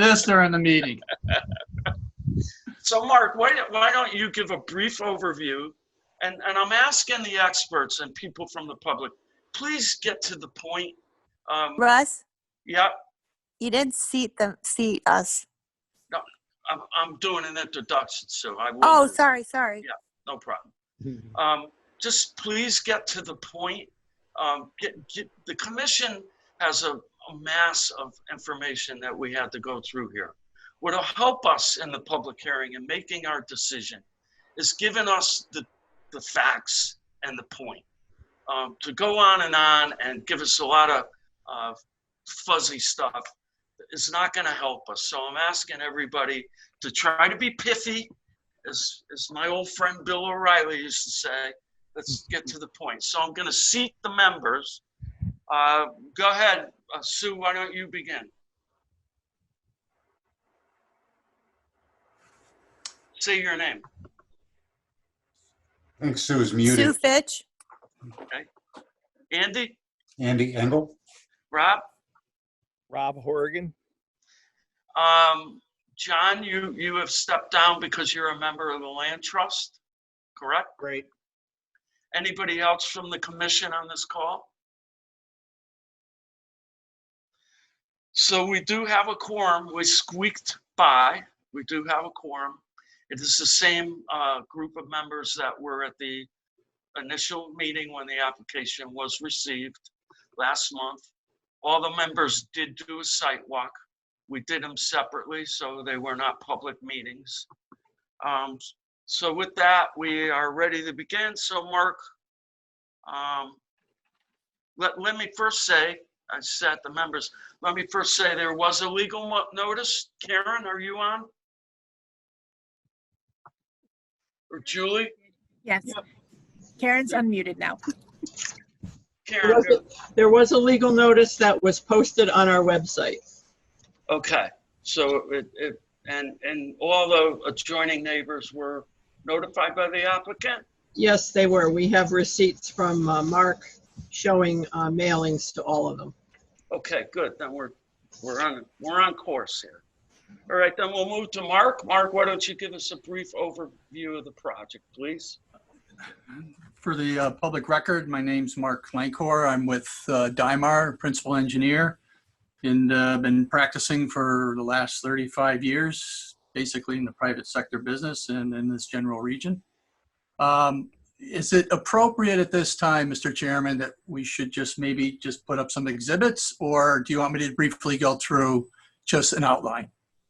this during the meeting. So Mark, why, don't- why don't you give a brief overview? And, and I'm asking the experts and people from the public, please get to the point. Um, Russ, yeah, you didn't seat them, seat us. I'm, I'm doing an introduction, so I will. Oh, sorry, sorry. No problem. Um, just please get to the point. Um, get, get, the commission has a, a mass of information that we had to go through here. What'll help us in the public hearing and making our decision is giving us the, the facts and the point. Um, to go on and on and give us a lot of uh, fuzzy stuff is not going to help us. So I'm asking everybody to try to be pithy as, as my old friend Bill O'Reilly used to say, let's get to the point. So I'm going to seat the members. Uh, Go ahead, uh, Sue, why don't you begin? Say your name. I think Sue is Sue muted. Fitch, Andy, Andy Engel? Rob, Rob Horgan. um, John, you, you have stepped down because you're a member of the Land Trust, correct? Great. Anybody else from the commission on this call? So we do have a quorum. We squeaked by. We do have a quorum. It is the same uh, group of members that were at the initial meeting when the application was received last month. All the members did do a site walk. We did them separately, so they were not public meetings. Um, so with that, we are ready to begin. So Mark, um, let, let me first say, I said the members, let me first say there was a legal mo- notice. Karen, are you on? Or Julie? Yes. Karen's unmuted now. There Karen, was a- There was a legal notice that was posted on our website. okay. So it, it, and, and all the adjoining neighbors were notified by the applicant? Yes, they were. We have receipts from uh, Mark showing uh, mailings to all of them. Okay, good. Then we're, we're on, we're on course here. All right, then we'll move to Mark. Mark, why don't you give us a brief overview of the project, please? For the uh, public record, my name's Mark Lankor. I'm with uh, Dymar, principal engineer, and uh, been practicing for the last 35 years, basically in the private sector business and in this general region. Um, Is it appropriate at this time, Mr. Chairman, that we should just maybe just put up some exhibits? Or do you want me to briefly go through just an outline?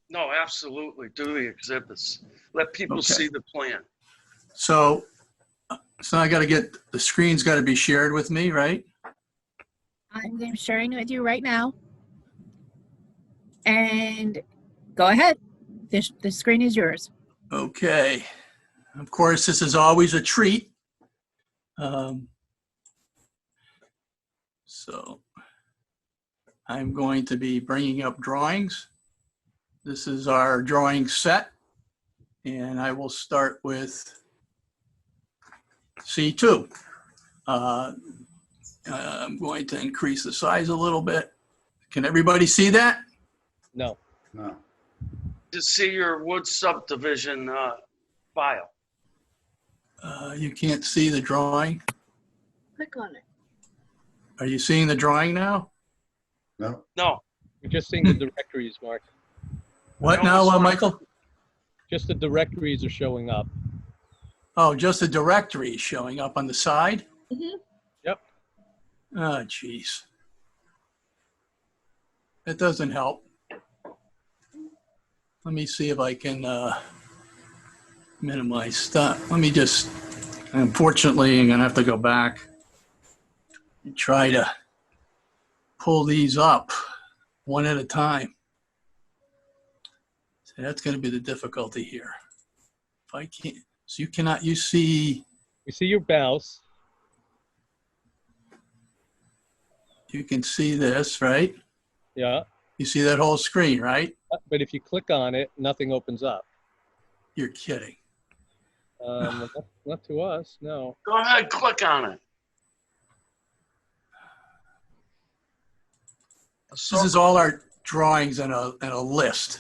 No, absolutely. Do the exhibits. Let people Okay. see the plan. So, uh, so I got to get, the screen's got to be shared with me, right? I'm sharing with you right now. And go ahead. This, the screen is yours. Okay. Of course, this is always a treat. Um, so I'm going to be bringing up drawings. This is our drawing set. And I will start with C2. Uh, I'm going to increase the size a little bit. Can everybody see that? No. No. To see your wood subdivision uh, file. Uh, you can't see the drawing. Click on it. Are you seeing the drawing now? No. No, We're just seeing the directories, Mark. What No, now, it's uh, not. Michael? Just the directories are showing up. Oh, just the directory is showing up on the side? Mhm. Yep. Oh, jeez. That doesn't help. Let me see if I can uh, minimize stuff. Let me just, unfortunately, I'm gonna have to go back and try to pull these up one at a time. So that's gonna be the difficulty here. If I can't, so you cannot, you see, We see your mouse. you can see this, right? Yeah. You see that whole screen, right? But if you click on it, nothing opens up. You're kidding. Um, not- not to us, no. go ahead, click on it. Oh. This is all our drawings in a, in a list.